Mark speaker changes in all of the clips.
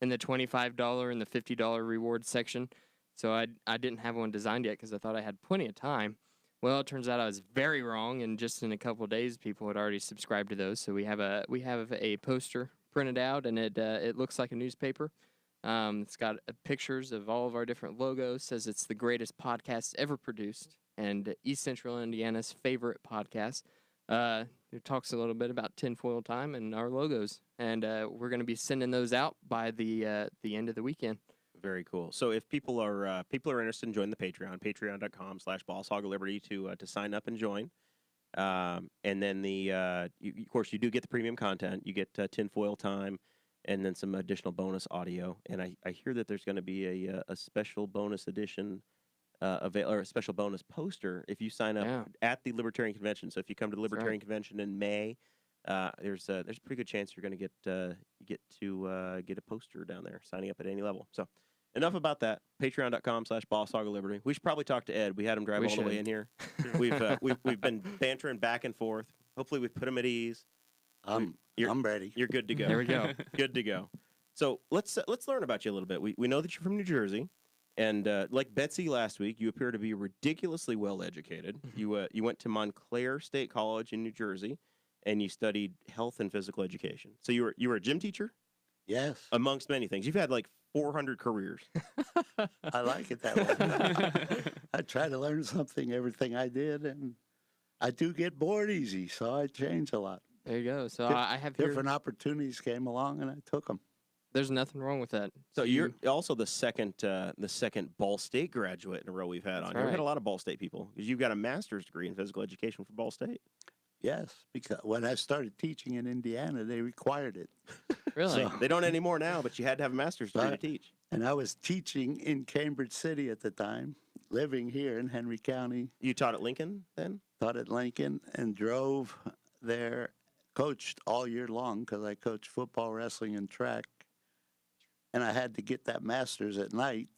Speaker 1: in the $25 and the $50 reward section. So I, I didn't have one designed yet because I thought I had plenty of time. Well, it turns out I was very wrong, and just in a couple of days, people had already subscribed to those. So we have a we have a poster printed out, and it uh, it looks like a newspaper. Um, it's got uh, pictures of all of our different logos. Says it's the greatest podcast ever produced, and East Central Indiana's favorite podcast. Uh, it talks a little bit about tinfoil time and our logos, and uh, we're going to be sending those out by the uh, the end of the weekend.
Speaker 2: Very cool. So if people are uh, people are interested in joining the Patreon, patreon.com slash boss hog of liberty to uh, to sign up and join. Um, and then the uh, you, of course you do get the premium content. You get uh, tinfoil time, and then some additional bonus audio. And I, I hear that there's going to be a uh, a special bonus edition. Uh, avail- or a special bonus poster if you sign up
Speaker 1: Yeah.
Speaker 2: at the Libertarian Convention. So if you come to the
Speaker 1: That's right.
Speaker 2: Libertarian Convention in May, uh, there's a, there's a pretty good chance you're going to get uh, you get to uh, get a poster down there signing up at any level. So enough about that. Patreon.com slash Boss Hog of Liberty. We should probably talk to Ed. We had him drive
Speaker 1: We
Speaker 2: all the way
Speaker 1: should.
Speaker 2: in here. we've, uh, we've we've been bantering back and forth. Hopefully we've put him at ease.
Speaker 3: I'm,
Speaker 2: You're-
Speaker 3: I'm ready.
Speaker 2: You're good to go.
Speaker 1: There we go.
Speaker 2: good to go. So let's uh, let's learn about you a little bit. We we know that you're from New Jersey, and uh, like Betsy last week, you appear to be ridiculously well educated.
Speaker 1: Mm-hmm.
Speaker 2: You uh, you went to Montclair State College in New Jersey, and you studied health and physical education. So you were you were a gym teacher
Speaker 3: Yes,
Speaker 2: amongst many things. You've had like 400 careers.
Speaker 3: I like it that way. I try to learn something, everything I did, and I do get bored easy, so I change a lot.
Speaker 1: There you go. So
Speaker 3: Diff-
Speaker 1: I I have here.
Speaker 3: Different opportunities came along, and I took them.
Speaker 1: There's nothing wrong with that.
Speaker 2: So you're also the second uh, the second Ball State graduate in a row we've had
Speaker 1: That's
Speaker 2: on. here. We've had a
Speaker 1: right.
Speaker 2: lot of Ball State people because you've got a master's degree in physical education from Ball State.
Speaker 3: Yes, because when I started teaching in Indiana, they required it,
Speaker 1: Really?
Speaker 3: So-
Speaker 2: They don't anymore now, but you had to have a master's degree to
Speaker 3: Right.
Speaker 2: teach.
Speaker 3: and I was teaching in Cambridge City at the time, living here in Henry County.
Speaker 2: You taught at Lincoln then.
Speaker 3: taught at Lincoln and drove there, coached all year long because I coached football, wrestling, and track. And I had to get that master's at night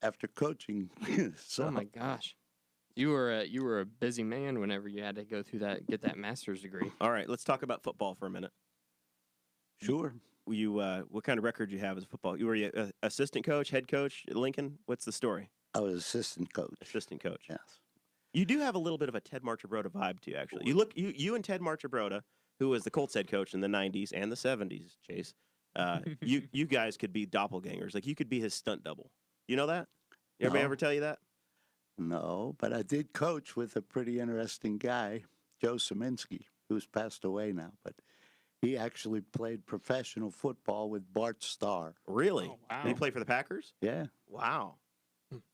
Speaker 3: after coaching. so
Speaker 1: oh my gosh. You were a, you were a busy man whenever you had to go through that get that master's degree.
Speaker 2: All right, let's talk about football for a minute.
Speaker 3: sure.
Speaker 2: You, uh, what kind of record you have as a football? You were a, a assistant coach, head coach at Lincoln. What's the story?
Speaker 3: I was assistant coach.
Speaker 2: Assistant coach.
Speaker 3: Yes.
Speaker 2: You do have a little bit of a Ted Marchabroda vibe to you, actually. You look, you you and Ted Marchabroda, who was the Colts head coach in the '90s and the '70s, Chase. Uh, you you guys could be doppelgangers. Like you could be his stunt double. You know that? Everybody
Speaker 3: No.
Speaker 2: ever tell you that?
Speaker 3: No, but I did coach with a pretty interesting guy, Joe Saminsky, who's passed away now, but he actually played professional football with Bart Starr.
Speaker 2: Really?
Speaker 4: Oh, wow.
Speaker 2: Did he play for the Packers?
Speaker 3: Yeah.
Speaker 2: Wow.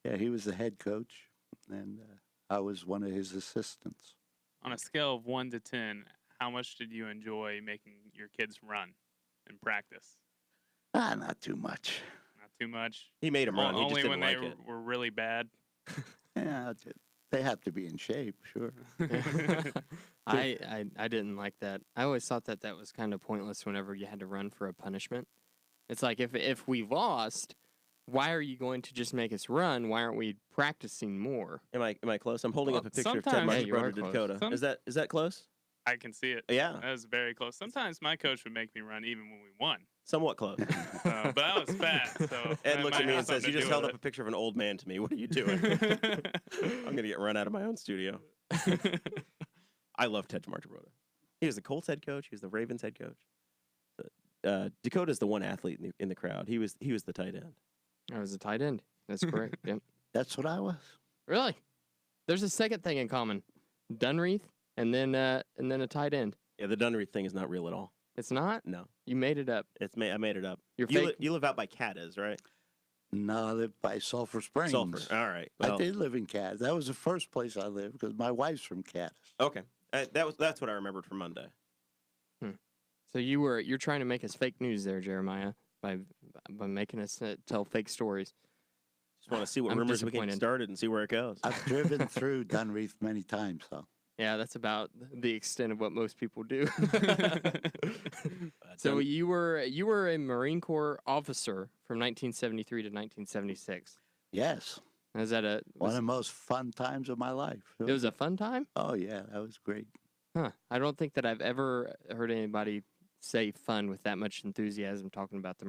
Speaker 3: Yeah. He was the head coach, and uh, I was one of his assistants.
Speaker 4: On a scale of one to ten, how much did you enjoy making your kids run and practice?
Speaker 3: Ah, not too much.
Speaker 4: Not too much.
Speaker 2: He made him
Speaker 4: O-
Speaker 2: run. He just
Speaker 4: Only
Speaker 2: didn't
Speaker 4: when
Speaker 2: like
Speaker 4: they
Speaker 2: it.
Speaker 4: were really bad.
Speaker 3: Yeah, it's- they have to be in shape, sure.
Speaker 1: I, I I didn't like that. I always thought that that was kind of pointless whenever you had to run for a punishment. It's like if if we lost, why are you going to just make us run? Why aren't we practicing more?
Speaker 2: Am I am I close? I'm holding
Speaker 4: Well,
Speaker 2: up a picture of Ted
Speaker 4: sometimes-
Speaker 1: Yeah, you are
Speaker 2: Marchabroda to
Speaker 1: close.
Speaker 2: Dakota.
Speaker 4: Some-
Speaker 2: Is that is that close?
Speaker 4: I can see it.
Speaker 2: Yeah,
Speaker 4: That was very close. Sometimes my coach would make me run even when we won.
Speaker 2: somewhat close.
Speaker 4: So, Oh, but I was fast. So
Speaker 2: Ed
Speaker 4: that
Speaker 2: looks at me
Speaker 4: might have
Speaker 2: and says, "You
Speaker 4: something to
Speaker 2: just
Speaker 4: do
Speaker 2: held up
Speaker 4: with
Speaker 2: a picture of an old man to me. What are you doing? I'm gonna get run out of my own studio."
Speaker 4: it."
Speaker 2: I love Ted Marchabroda. He was the Colts head coach. He was the Ravens head coach. But, Uh, Dakota's the one athlete in the, in the crowd. He was he was the tight end.
Speaker 1: I was a tight end. That's correct. yep.
Speaker 3: That's what I was.
Speaker 1: Really? There's a second thing in common. Dunreath and then uh and then a tight end.
Speaker 2: Yeah, the Dunry thing is not real at all.
Speaker 1: It's not?
Speaker 2: No,
Speaker 1: You made it up.
Speaker 2: it's ma- I made it up.
Speaker 1: You're
Speaker 2: You,
Speaker 1: fake.
Speaker 2: li- you live out by Cadiz, right?
Speaker 3: No, I lived by Sulphur Springs.
Speaker 2: Sulphur. All right.
Speaker 3: I
Speaker 2: well,
Speaker 3: did live in Cadiz. That was the first place I lived because my wife's from Cadiz.
Speaker 2: Okay. Uh, that was that's what I remembered from Monday.
Speaker 1: So you were you're trying to make us fake news there, Jeremiah, by by making us uh, tell fake stories.
Speaker 2: Just want to see what
Speaker 1: I'm
Speaker 2: rumors we can get
Speaker 1: disappointed.
Speaker 2: started and see where it goes.
Speaker 3: I've driven through Dunreath many times, though.
Speaker 1: Yeah, that's about the extent of what most people do.
Speaker 2: Uh,
Speaker 1: so
Speaker 2: Dun-
Speaker 1: you were you were a Marine Corps officer from 1973 to 1976.
Speaker 3: Yes,
Speaker 1: Is that a
Speaker 3: one
Speaker 1: was-
Speaker 3: of the most fun times of my life.
Speaker 1: it was a fun time?
Speaker 3: oh yeah, that was great.
Speaker 1: Huh. I don't think that I've ever heard anybody say fun with that much enthusiasm talking about the